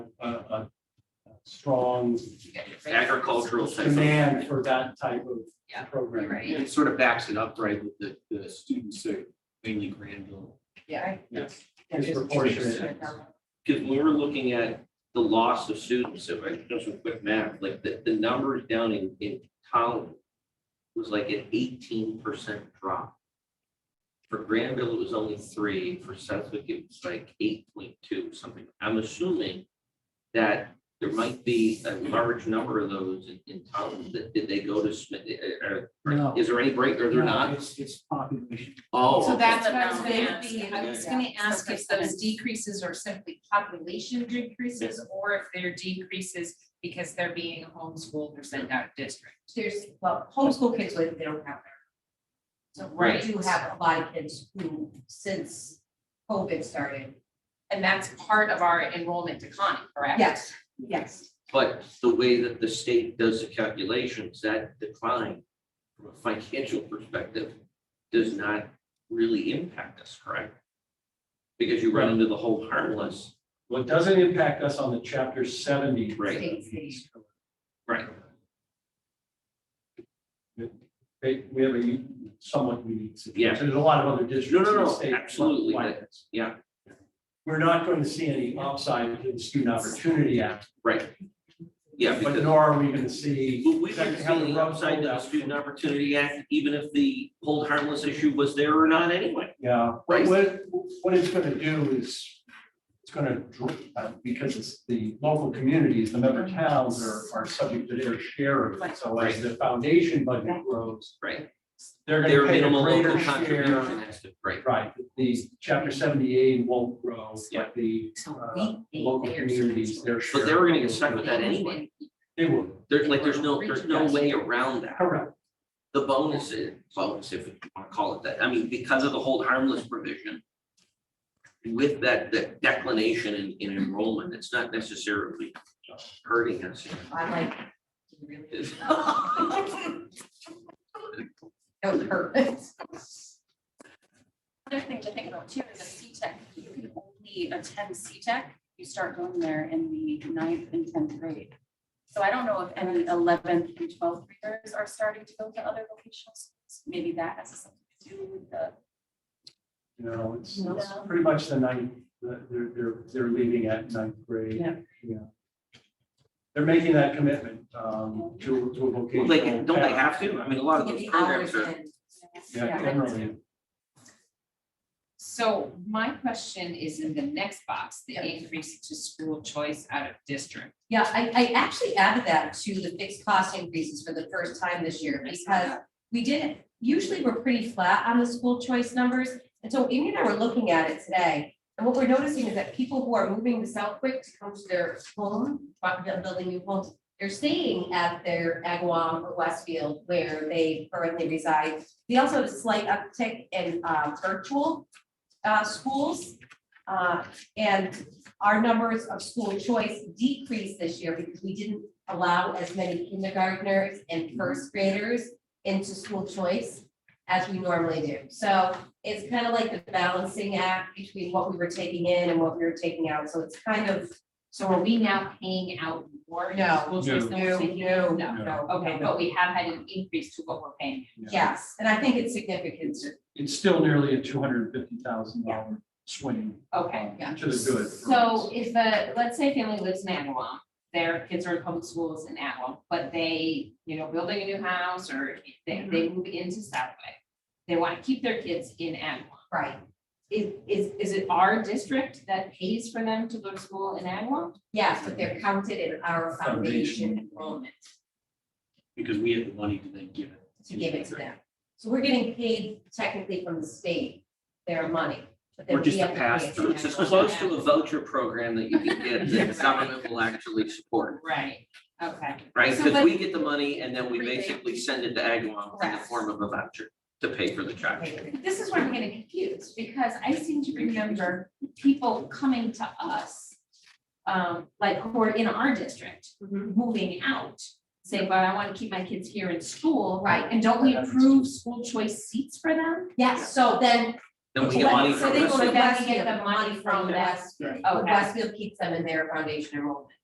a, a a strong Agricultural type of. demand for that type Yeah, of program. right. It sort of backs it up, right, with the, the students are mainly Granville. Yeah. Yes. That is- Disproportionate. Because when we're looking at the loss of students, if I do some quick math, like the, the numbers down in, in Collin was like an eighteen percent drop. For Granville, it was only three, for Southwick, it was like eight point two something. I'm assuming that there might be a large number of those in, in Collin that, did they go to Smith, uh, uh, No. is there any break, or they're No, not? It's, it's population. Oh. So okay. that's what That's I was what gonna I'm be, asking. I was Yeah. gonna ask if those Percentage. decreases are simply population decreases or if they're decreases because they're being homeschooled or sent out of district. There's, well, homeschool kids, like, they don't have their. So we Right. do have a lot of kids who, since COVID started, And that's part of our enrollment decline, correct? yes, yes. But the way that the state does the calculations, that decline from a financial perspective does not really impact us, correct? Because you run into the whole harmless, What doesn't impact us on the chapter seventy. Right. States. right? They, we have a u- somewhat unique Yeah. situation. There's a lot of other districts. No, no, in the no, state absolutely, like that- this. yeah. We're not going to see any upside to the Student Opportunity Act, Yeah, but because nor are we going to see. but we exactly didn't how the see the rub's upside to the rolled out. Student Opportunity Act, even if the whole harmless issue was there or not anyway. Yeah, Right. what, what, what it's gonna do is, it's gonna, dr- uh, because it's the local communities, the member towns are, are subject to their share of it. So as the foundation budget grows. Right. They're Their gonna pay a minimal greater local share. contribution has to, right? Right, the chapter seventy-eight won't grow, Yeah. but the So uh, we ate local theirs. communities, their But they share, were gonna get stuck with that anyway. they will, There's like, there's no, there's no way around that. correct. the bonus is, bonus if you want to call it that, I mean, because of the hold harmless provision. With that, the declination in, in enrollment, it's not necessarily hurting us. I like, really, It's- that was her. Other thing to think about too is a C-Tech, you can only attend C-Tech, you start going there in the ninth and tenth grade. So I don't know if any eleventh and twelfth graders are starting to go to other vocational schools, maybe that has something to do with the. You know, it's, it's No. pretty much the ninth, the- they're, they're, they're leaving at ninth grade. Yeah. Yeah. They're making that commitment, um, to, to a vocational. Like, don't they path. have to? I mean, a lot of those Getting programs hours are, in. Yeah, generally, So my question is in the next box, the Yeah. increase to school choice out of district. Yeah, I, I actually added that to the fixed cost increases for the first time this year because we didn't, usually we're pretty flat on the school choice numbers. And so Amy and I were looking at it today, and what we're noticing is that people who are moving to Southwick to come to their home, bu- bu- building new homes, they're staying at their Agawam or Westfield where they currently reside. We also have a slight uptick in uh, virtual uh, schools. Uh, And our numbers of school choice decreased this year because we didn't allow as many kindergartners Mm-hmm. and first graders into school choice as we normally do. So it's kind of like the balancing act between what we were taking in and what we were taking out. So it's kind of, So are we now paying out more? No. School choice than No, we're taking? no, No. no, Okay, okay, but we have had an increase to what we're paying. yes, and I think it's significant. it's still nearly a two hundred and fifty thousand dollar swing. Okay. um, yeah. To the good. for So us. if a, let's say a family lives in Agawam, their kids are in public schools in Agawam, but they, you know, building a new house or they, Mm-hmm. they move into Southwick. They want to keep their kids in Agawam. Right, Is, is, is it our district that pays for them to go to school in Agawam? yes, but they're counted in our Foundation. foundation enrollment Because we have the money to then give it. to give it to them. So we're getting paid technically from the state their money, but then Or we just a have to pay it pass to through. it's as everyone. close to a voucher program that you can get that the government will actually support, Right, okay. right? So, Because but- we get the money and then we basically send it to Agawam in the Correct. form of a voucher to pay for the child. This is where I'm getting confused, because I seem to remember people coming to us, um, like who are in our district, Mm-hmm. moving out, saying, but I want to keep my kids here in school. Right. And don't we approve school choice seats for them? Yes, so then Then we get money So from they this. will But then we get Westfield, the money from that, Westfield. okay. Westfield keeps them in their foundation enrollment.